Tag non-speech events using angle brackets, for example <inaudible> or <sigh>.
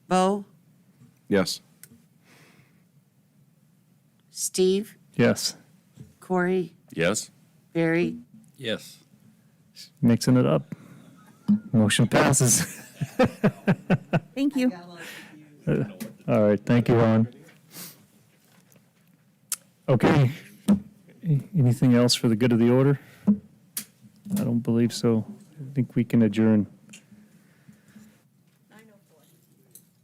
Bo, Yes. Steve, Yes. Corey, Yes. Barry, Yes. Mixing it up. Motion passes. <laughs> Thank you. All right, thank you, Ron. Okay, A- anything else for the good of the order? I don't believe so. I think we can adjourn.